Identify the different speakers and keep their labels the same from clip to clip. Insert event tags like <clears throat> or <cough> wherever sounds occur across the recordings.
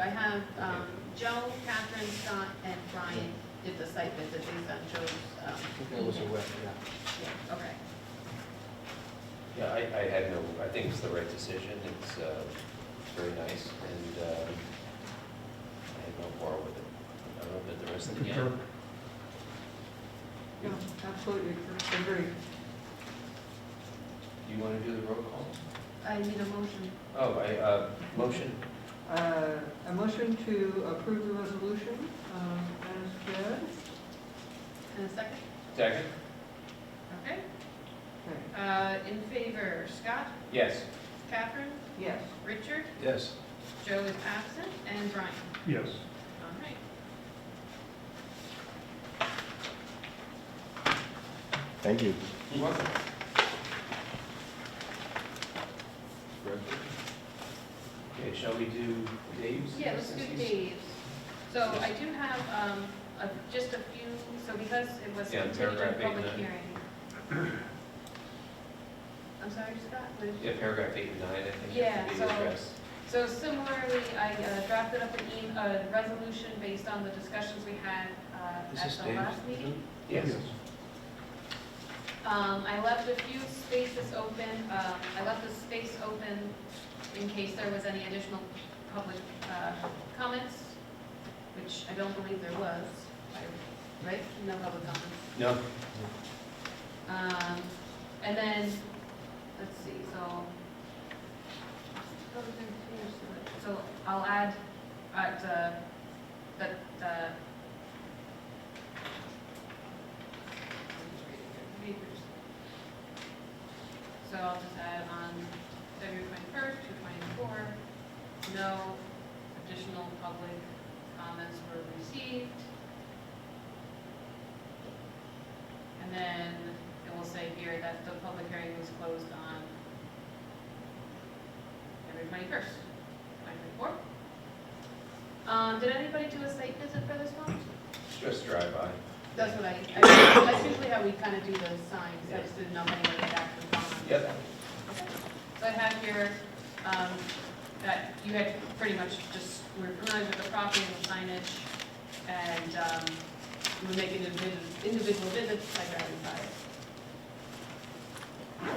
Speaker 1: I have um, Joe, Catherine, Scott, and Brian did the site visit based on Joe's, um,
Speaker 2: Those are wet, yeah.
Speaker 1: yeah, okay.
Speaker 3: Yeah, I, I had no, I think it's the right decision, it's, uh, it's very nice, and, um I have no quarrel with it. I don't know that the rest of the gang,
Speaker 4: Yeah, absolutely, agree.
Speaker 3: you wanna do the roll call?
Speaker 1: I need a motion.
Speaker 3: Oh, I, uh, motion,
Speaker 4: Uh, A motion to approve the resolution um, as read.
Speaker 1: And a second?
Speaker 3: second?
Speaker 1: Okay.
Speaker 4: Okay,
Speaker 1: Uh, In favor, Scott,
Speaker 3: Yes.
Speaker 1: Catherine,
Speaker 4: Yes.
Speaker 1: Richard,
Speaker 3: Yes.
Speaker 1: Joe is absent, and Brian.
Speaker 5: Yes.
Speaker 1: All right.
Speaker 6: Thank you.
Speaker 3: You're welcome. Okay, shall we do Dave's?
Speaker 1: Yeah, let's do
Speaker 3: since he's-
Speaker 1: Dave's. So I do have um, a- just a few, so because it was
Speaker 3: Yeah,
Speaker 1: continued
Speaker 3: paragraph eight and
Speaker 1: public
Speaker 3: nine.
Speaker 1: hearing.
Speaker 3: <clears throat>
Speaker 1: I'm sorry, Scott, what did you?
Speaker 3: Yeah, paragraph eight and nine, I think.
Speaker 1: Yeah,
Speaker 3: need to
Speaker 1: so-
Speaker 3: address.
Speaker 1: So similarly, I uh, drafted up an em- a resolution based on the discussions we had uh,
Speaker 2: Is
Speaker 1: at
Speaker 2: this
Speaker 1: the last
Speaker 2: Dave's?
Speaker 1: meeting.
Speaker 3: Yes.
Speaker 1: Um, I left a few spaces open, uh, I left a space open in case there was any additional public uh, comments, which I don't believe there was, I- right? No public comments.
Speaker 3: No?
Speaker 1: Um, and then, let's see, so. So I'll add, at, uh, that, uh. So I'll just add on February twenty-first, two twenty-four, no additional public comments were received. And then it will say here that the public hearing was closed on February twenty-first, twenty twenty-four. Um, did anybody do a site visit for this one?
Speaker 3: Just drive by.
Speaker 1: That's what I, I- that's usually how we kind of do the signs, I just didn't know if anybody had actually gone.
Speaker 3: Yep.
Speaker 1: So I have here, um, that you had pretty much just, we're familiar with the property and the signage, and, um, we were making individual, individual visits, like driving by.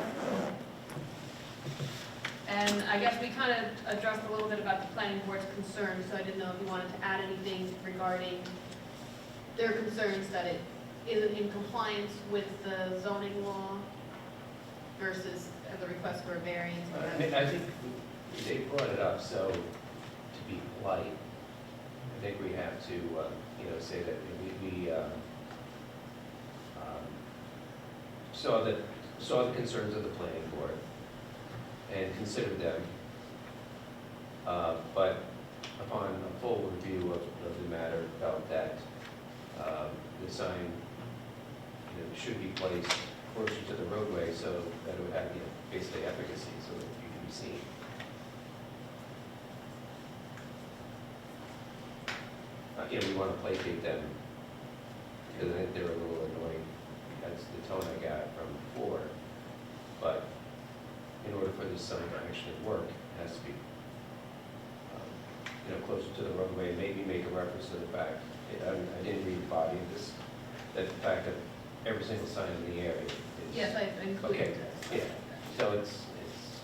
Speaker 1: And I guess we kind of addressed a little bit about the planning board's concerns, so I didn't know if you wanted to add anything regarding their concerns that it isn't in compliance with the zoning law versus the request for a variance.
Speaker 3: I mean, I think they brought it up, so to be polite, I think we have to, um, you know, say that we, we um, um, saw the, saw the concerns of the planning board and considered them, Uh, but upon a full review of, of the matter, felt that um, the sign, you know, should be placed closer to the roadway so that it would have, you know, basically efficacy, so that you can be seen. Uh, you know, we want to placate them, because I think they're a little annoying, that's the tone I got from before. But in order for this sign to actually work, it has to be, um, you know, closer to the roadway, maybe make a reference to the fact, I I didn't read the body of this, that the fact that every single sign in the area is.
Speaker 1: Yes, I included
Speaker 3: Okay,
Speaker 1: this.
Speaker 3: So it's, it's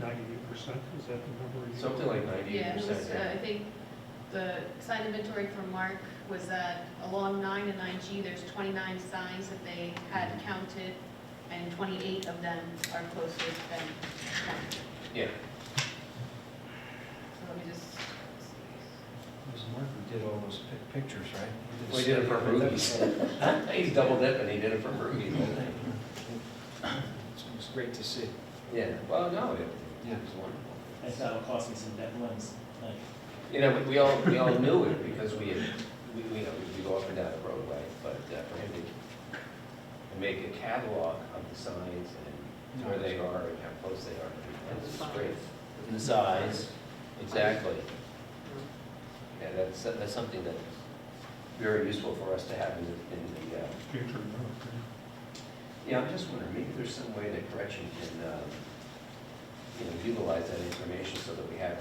Speaker 5: Ninety-eight percent, is that the number? you-
Speaker 3: something like ninety
Speaker 1: Yeah, it was, uh, I
Speaker 3: percent.
Speaker 1: think the sign inventory from Mark was that along nine and nine G, there's twenty-nine signs that they had counted, and twenty-eight of them are closer than counted.
Speaker 3: Yeah,
Speaker 1: So let me just, let's see.
Speaker 2: It was Mark who did all those pic- pictures, right?
Speaker 3: Well, he did it for
Speaker 2: study on that.
Speaker 3: movies. he's double dipping, he did it for Ruby, the whole thing.
Speaker 2: It's- It's great to see.
Speaker 3: Yeah, well, no, it
Speaker 2: Yeah.
Speaker 3: it was wonderful.
Speaker 7: I thought it cost me some dead limbs, like,
Speaker 3: You know, we- we all, we all knew it because we, had- we, we, you know, we go up and down the roadway, but uh, for him to to make a catalog of the signs and where they are and how close they are, that's great. And the size, exactly. Yeah, that's, that's something that's very useful for us to have in, the- in the, uh,
Speaker 5: Future, no,
Speaker 3: uh, yeah, I'm just wondering, maybe there's some way that correction can, um, you know, utilize that information so that we have